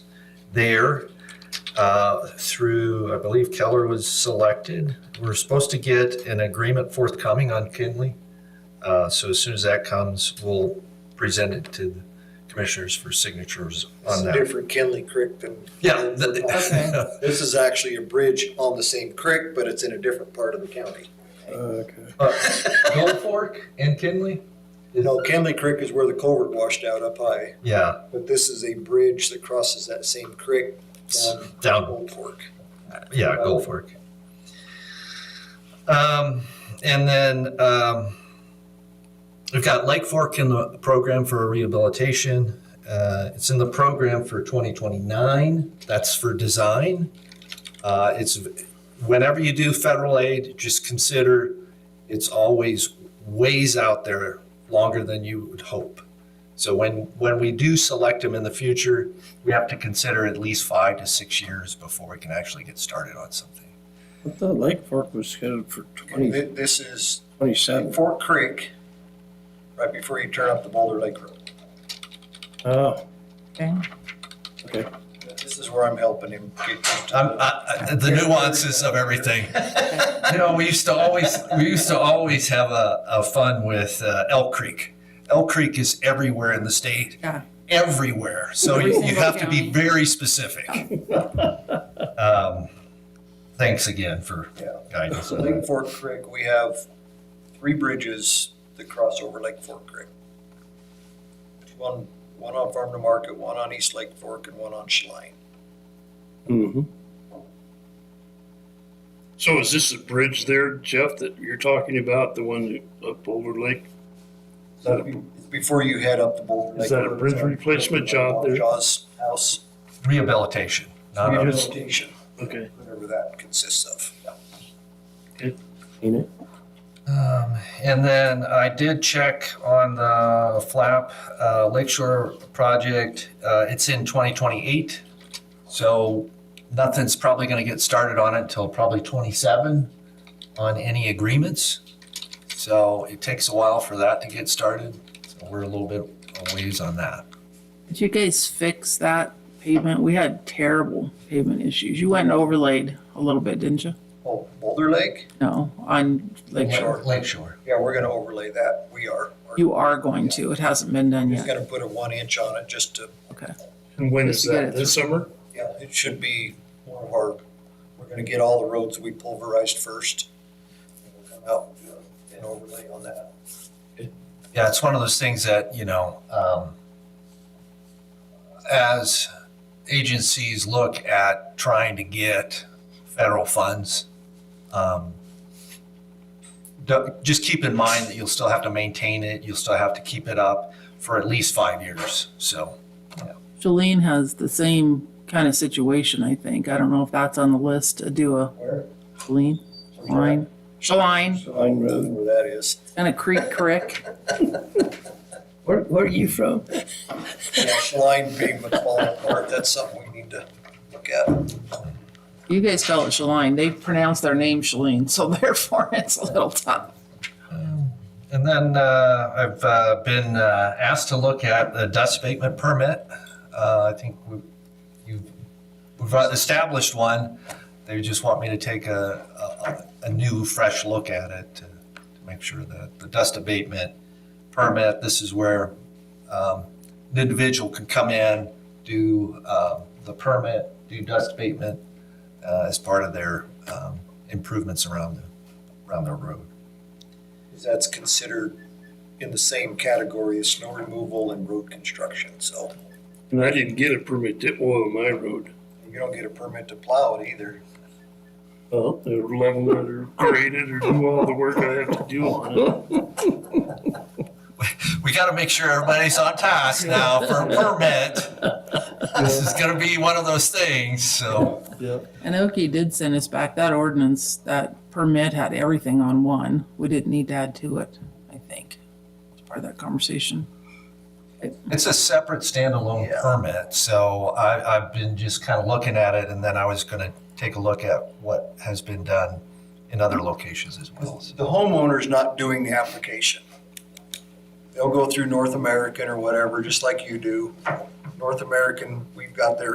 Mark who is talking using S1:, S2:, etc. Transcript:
S1: there uh, through, I believe Keller was selected. We're supposed to get an agreement forthcoming on Kinley. Uh, So as soon as that comes, we'll present it to the commissioners for signatures
S2: It's
S1: on
S2: a
S1: that.
S2: different Kinley Creek than.
S1: Yeah.
S3: Okay.
S1: the-
S2: This is actually a bridge on the same creek, but it's in a different part of the county.
S4: Okay.
S1: Gold Fork and Kinley?
S2: You know, Kinley Creek is where the culvert washed out up high,
S1: Yeah,
S2: but this is a bridge that crosses that same creek down
S1: down,
S2: Old Fork.
S1: yeah, Gold Fork. Um, and then, um, we've got Lake Fork in the program for rehabilitation. Uh, it's in the program for twenty twenty-nine, that's for design. Uh, it's, whenever you do federal aid, just consider it's always ways out there longer than you would hope. So when, when we do select them in the future, we have to consider at least five to six years before we can actually get started on something.
S4: I thought Lake Fork was scheduled for
S2: And
S4: twenty,
S2: thi- This is
S4: twenty-seven.
S2: Fork Creek, right before you turn up the Boulder Lake Road.
S4: Oh,
S3: Okay.
S4: okay.
S2: This is where I'm helping him get to
S1: I'm, I, I, the nuances of everything. You know, we used to always, we used to always have a, a fun with uh, Elk Creek. Elk Creek is everywhere in the state.
S3: Yeah.
S1: Everywhere. So
S3: Every
S1: you you
S3: single
S1: have to be
S3: county.
S1: very specific. Um, Thanks again for
S2: Yeah.
S1: guidance.
S2: So Lake Fork Creek, we have three bridges that cross over Lake Fork Creek. One, one on Farm to Market, one on East Lake Fork, and one on Schlein.
S4: Mm-hmm.
S5: So is this the bridge there, Jeff, that you're talking about, the one up Boulder Lake? Is that a-
S2: It's Before you head up the Boulder Lake.
S5: Is that a
S2: Road,
S5: bridge
S2: it's on-
S5: replacement job there?
S2: Shaw's house,
S1: Rehabilitation. not a-
S2: rehabilitation,
S5: Okay,
S2: whatever that consists of.
S4: Ain't it?
S1: Um, and then I did check on the flap, uh, Lakeshore project, uh, it's in twenty twenty-eight. So nothing's probably gonna get started on it until probably twenty-seven on any agreements. So it takes a while for that to get started, so we're a little bit a ways on that.
S3: Did you guys fix that pavement? We had terrible pavement issues. You went and overlaid a little bit, didn't you?
S2: Oh, Boulder Lake,
S3: No, on Lake Shore.
S1: Lakeshore.
S2: yeah, we're gonna overlay that, we are. We're
S3: You are going to. It hasn't been done
S2: Just
S3: yet.
S2: gonna put a one inch on it just to
S3: Okay.
S5: and when is
S3: Just to get
S5: that,
S3: it
S5: this summer?
S2: Yeah, it should be more of our, we're gonna get all the roads we pulverized first. and we'll come out and do an overlay on that.
S1: Yeah, it's one of those things that, you know, um, as agencies look at trying to get federal funds, um, don't- just keep in mind that you'll still have to maintain it, you'll still have to keep it up for at least five years, so.
S3: Shalene has the same kind of situation, I think. I don't know if that's on the list to do a
S2: Where?
S3: Shalene, Shaline, Shaline,
S4: Line Road.
S2: Where that is.
S3: and a creek crick.
S4: Where, where are you from?
S2: Yeah, Line pavement falling apart, that's something we need to look at.
S3: You guys spell it Shaline. They pronounce their name Shalene, so therefore it's a little tough.
S1: And then uh, I've uh, been uh, asked to look at the dust abatement permit. Uh, I think we, you, we've established one. They just want me to take a, a, a new, fresh look at it to, to make sure that the dust abatement permit, this is where um, an individual can come in, do um, the permit, do dust abatement uh, as part of their um, improvements around the, around their road.
S2: That's considered in the same category as snow removal and road construction, so
S5: And I didn't get a permit to oil my road.
S2: you don't get a permit to plow it either.
S5: Oh. They were level it or grade it or do all the work I have to do on it.
S1: we got to make sure everybody's on task now for a permit. This is going to be one of those things, so.
S3: And Oki did send us back that ordinance, that permit had everything on one. We didn't need to add to it, I think. It's part of that conversation.
S1: It's a separate standalone
S2: Yeah.
S1: permit, so I, I've been just kind of looking at it, and then I was going to take a look at what has been done in other locations as well.
S2: The homeowner's not doing the application. They'll go through North American or whatever, just like you do. North American, we've got their